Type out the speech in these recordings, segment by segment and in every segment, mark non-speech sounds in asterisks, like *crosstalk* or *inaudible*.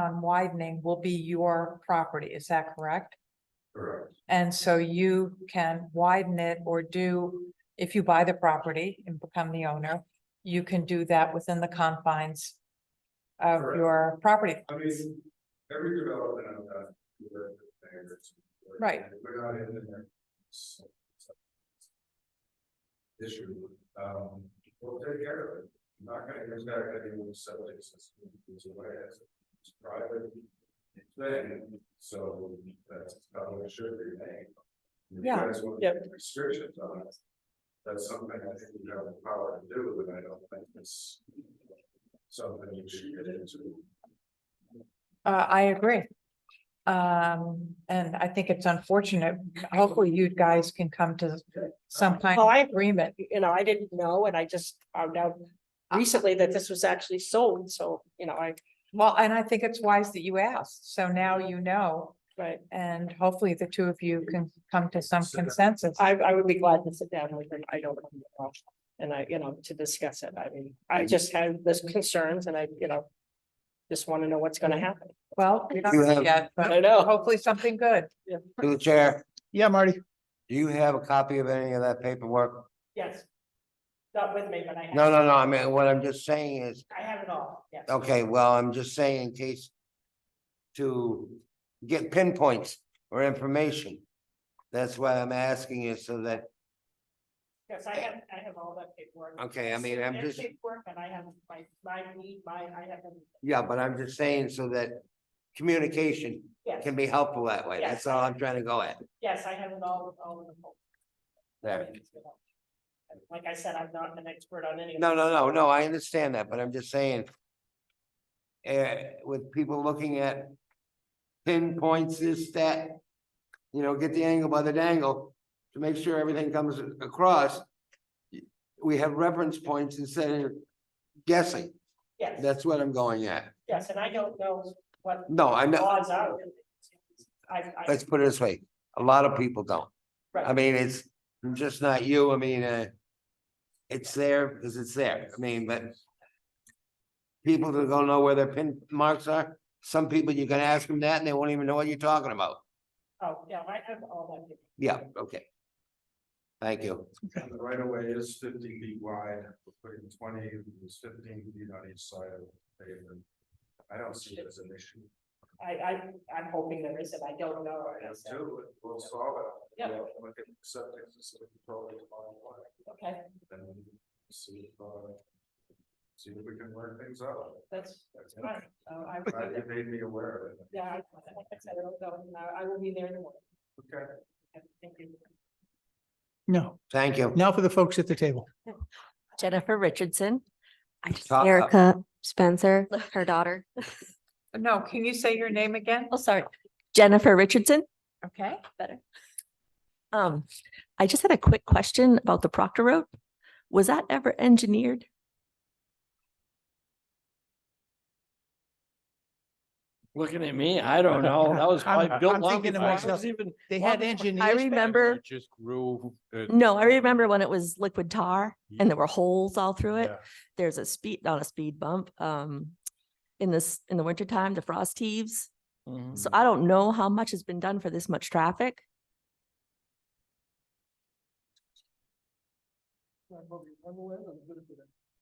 on widening will be your property, is that correct? Correct. And so you can widen it or do, if you buy the property and become the owner, you can do that within the confines of Correct. your property. I mean, every development I've done. we've worked with mayors, we've worked- Right. We're not in there. so- so- Issue, um, we'll take care of it, I'm not gonna impact anyone's septic system, it's a way, it's, it's private. Thing, so that's how it should remain. If Yeah. You guys want to put restrictions on it. That's something I think you have the power to do, and I don't think it's. Something you should get into. Uh, I agree. Um, and I think it's unfortunate. Hopefully you guys can come to some kind Well, of I- agreement. you know, I didn't know, and I just found out recently that this was actually sold, so, you know, I, Well, and I think it's wise that you asked. So now you know, right, and hopefully the two of you can come to some Sit down. consensus. I, I would be glad to sit down with them, I don't. know, And I, you know, to discuss it, I mean, I just have those concerns and I, you know, just want to know what's gonna happen, Well, we don't You know have- yet, but I know. hopefully something good. Through the chair, Yeah, Marty. do you have a copy of any of that paperwork? Yes. Not with me, but I. have- No, no, no, I mean, what I'm just saying is, I have it all, yes. okay, well, I'm just saying in case to get pinpoints or information. That's why I'm asking you so that, Yes, I have, I have all that paperwork. Okay, I mean, Their I'm just- Paperwork, and I have my, my, need, my, I have them. yeah, but I'm just saying so that communication Yes, can be helpful that way. That's all I'm trying to go at yes, I have it all, all in the folder. there. Like I said, I'm not an expert on any. of No, this. no, no, no, I understand that, but I'm just saying. eh, with people looking at pinpoints, this, that, you know, get the angle by the dangle to make sure everything comes across. We have reference points instead of guessing. Yes, That's what I'm going at. yes, and I don't know what No, I the know, odds are. I, I, let's put it this way, a lot of people don't. I Right. mean, it's just not you, I mean, uh. It's there because it's there, I mean, but. People that don't know where their pin marks are, some people you can ask them that and they won't even know what you're talking about. oh, yeah, I have all that. Yeah, okay. Thank you. And the right of way is fifty feet wide, we're putting twenty, it's fifteen feet on each side of the pavement. I don't see it as an issue. I, I, I'm hoping there is, and I don't know. I have so, two, we'll solve it. Yeah. We'll Look at the septic system, probably tomorrow morning, Okay, and then see if, uh, see if we can work things out. that's, that's fine. Uh, I, Glad You made me aware of it. yeah, I, like I said, I don't know, and I, I will be there in the morning. Okay. Okay, Thank you. No, Thank you. now for the folks at the table. Jennifer Richardson, I just. Erica Spencer, her daughter. No, can you say your name again? Oh, sorry. Jennifer Richardson. Okay. Better. Um, I just had a quick question about the Proctor Road. Was that ever engineered? Looking at me, I don't know. That was *laughs* I'm- probably built I'm long thinking to before I myself, was even. They long had before- engineers. I remember, Just grew. uh, no, I remember when it was liquid tar and there were holes all through it. Yeah. There's a speed, not a speed bump, um, in this, in the wintertime, the frost heaves. Mm-hmm. Mm-hmm. So I don't know how much has been done for this much traffic.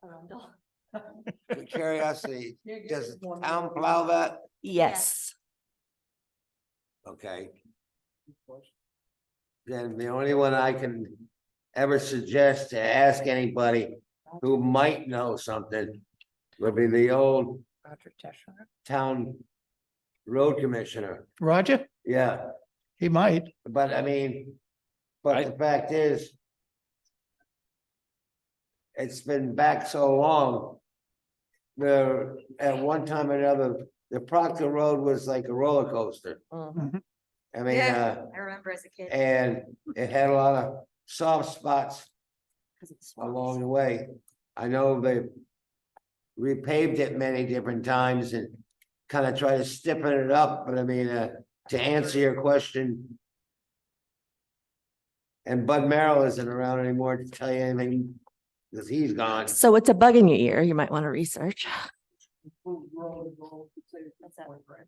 Um, *laughs* Curiosity, does the town plow that? Yes. Okay. Then the only one I can ever suggest to ask anybody who might know something would be the old Roger Tishner. town road commissioner. Roger, Yeah, he might. but I mean, but the fact is it's been back so long. There, at one time or another, the Proctor Road was like a roller coaster. Mhm. I mean, uh, I remember as a kid. and it had a lot of soft spots along the way. I know they repaved it many different times and kind of try to stiffen it up, but I mean, uh, to answer your question. And Bud Merrill isn't around anymore to tell you anything, because he's gone. So it's a bug in your ear. You might want to research. That's it.